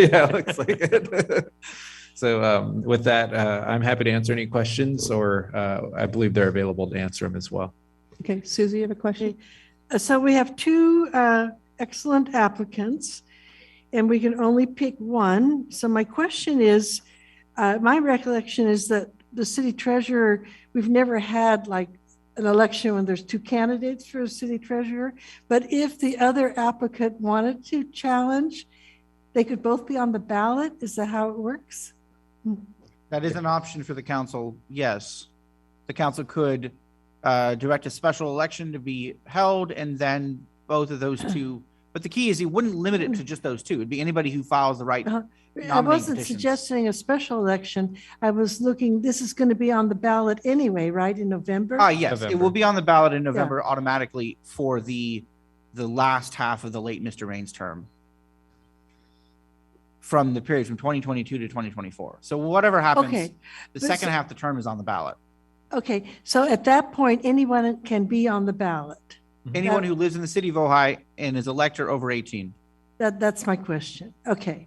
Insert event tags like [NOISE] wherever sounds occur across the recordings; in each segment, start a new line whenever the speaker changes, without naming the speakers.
[LAUGHS] yeah, it looks like it. [LAUGHS] so um, with that, uh, I'm happy to answer any questions, or uh, I believe they're available to answer them as
[LAUGHS]
well.
Okay, Susie, you have a question?
Uh, So we have two uh, excellent applicants, and we can only pick one. So my question is, uh, my recollection is that the city treasurer, we've never had like an election when there's two candidates for a city treasurer. But if the other applicant wanted to challenge, they could both be on the ballot? Is that how it works?
That is an option for the council, yes. The council could uh, direct a special election to be held and then both of those two. But the key is he wouldn't limit it to just those two. It'd be anybody who files the right.
I
Nominate
wasn't
petitions.
suggesting a special election. I was looking, this is going to be on the ballot anyway, right, in November?
Ah, yes, it
November.
will be on the ballot in November automatically for the, the last half of the late Mr. Rain's term. From the period from 2022 to 2024. So whatever happens,
Okay,
the
but
second
so-
half of the term is on the ballot.
okay. So at that point, anyone can be on the ballot.
Anyone who lives in the city of Ojai and is elector over 18.
That, that's my question. Okay.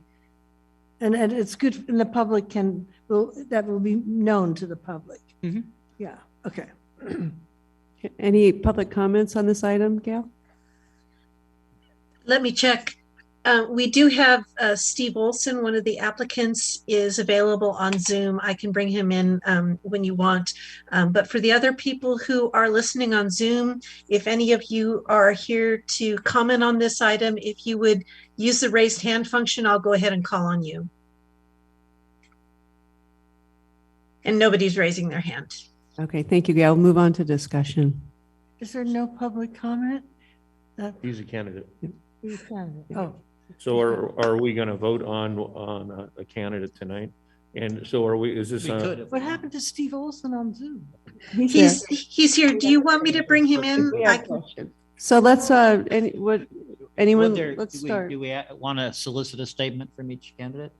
And, and it's good, and the public can, will, that will be known to the public.
Mhm.
Yeah, okay. [CLEARS THROAT]
Any public comments on this item, Gail?
Let me check. Uh, we do have uh, Steve Olson, one of the applicants, is available on Zoom. I can bring him in um, when you want. Um, but for the other people who are listening on Zoom, if any of you are here to comment on this item, if you would use the raised hand function, I'll go ahead and call on you. And nobody's raising their hand.
Okay, thank you, Gail. Move on to discussion.
Is there no public comment? That-
Mm.
He's a candidate.
you can- Oh,
So are, are we going to vote on, on a- a candidate tonight? And so are we, is this, a-
what happened to Steve Olson on Zoom?
He's he's here. Do you want me to bring him in? I can
So let's, uh, any, what, anyone,
Would there-
let's
do we-
start.
Do we want to solicit a statement from each candidate?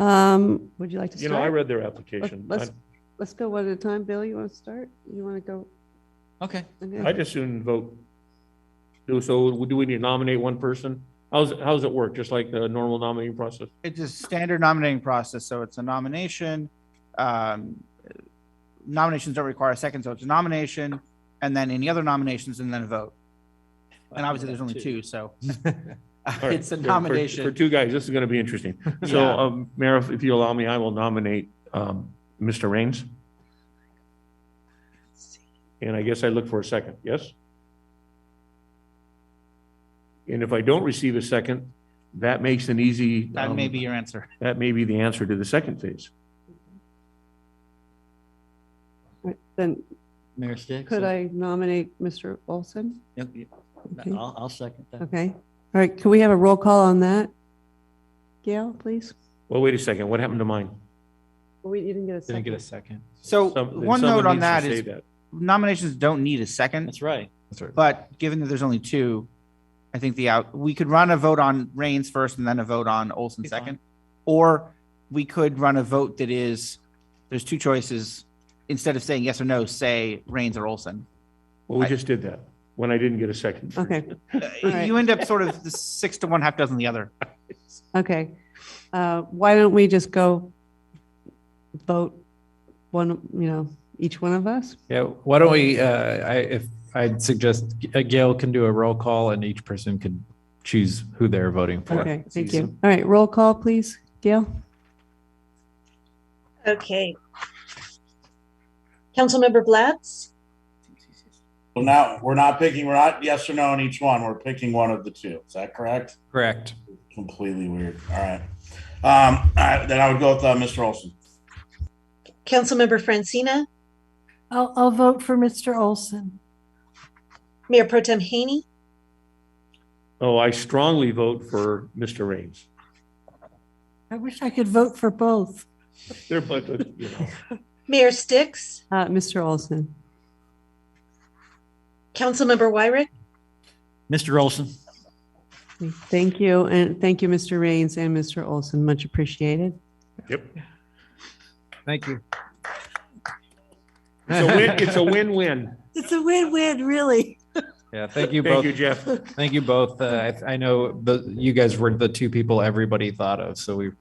Um, would you like to
you know, I
start?
read their application.
Let's- Let's go one at a time. Bill, you want to start? You want to go?
Okay.
I just soon vote. Do, so do we need to nominate one person? How's, how's it work? Just like the normal nominating process?
It's a standard nominating process, so it's a nomination. Um, nominations don't require a second, so it's a nomination, and then any other nominations, and then a vote. And obviously, there's only two, so uh,
All
[LAUGHS]
right,
it's a
for- for- For
nomination.
two guys, this is going to be interesting. So,
Yeah.
um, Mayor, if- if you allow me, I will nominate, um, Mr. Rains. And I guess I look for a second, yes? And if I don't receive a second, that makes an easy.
That
um,
may be your answer.
That may be the answer to the second phase.
Then
Mayor Sticks?
could I nominate Mr. Olson?
Yep, yep.
Okay.
I'll, I'll second that.
Okay. All right, can we have a roll call on that? Gail, please?
Well, wait a second, what happened to mine?
We, you didn't get a
Didn't get a
second.
second.
So
Some- then
one
someone
note on
needs to
that
say
is nominations don't need a second,
That's right.
That's right.
but given that there's only two, I think the out we could run a vote on Reigns first, and then a vote on Olson
Be fine.
second, or we could run a vote that is there's two choices. Instead of saying yes or no, say Reigns or Olson.
Well, we
I-
just did that, when I didn't get a second.
Okay,
Uh,
Alright.
You end up sort of the six to one, half dozen the other.
okay. Uh, why don't we just go vote one, you know, each one of us?
Yeah, why don't we, uh, I, if, I'd suggest G- uh, Gail can do a roll call and each person can choose who they're voting for.
Okay,
It's
thank
easy.
you. All right, roll call, please. Gail?
Okay. Councilmember Blatz,
Well, now, we're not picking, we're not yes or no on each one. We're picking one of the two. Is that correct?
Correct.
Completely weird. All right. Um, all right, then I would go with uh, Mr. Olson.
Councilmember Francina,
I'll, I'll vote for Mr. Olson.
Mayor Pro Tem Haney,
Oh, I strongly vote for Mr. Rains.
I wish I could vote for both.
They're both, you know.
Mayor Sticks,
Uh, Mr. Olson?
Councilmember Wyrick,
Mr. Olson?
Thank you, and thank you, Mr. Rains and Mr. Olson, much appreciated.
Yep.
Thank you.
It's a win, it's a win-win.
It's a win-win, really.
[LAUGHS] Yeah, thank you
Thank
both.
you, Jeff.
Thank you both. Uh, I, I know the, you guys were the two people everybody thought of, so we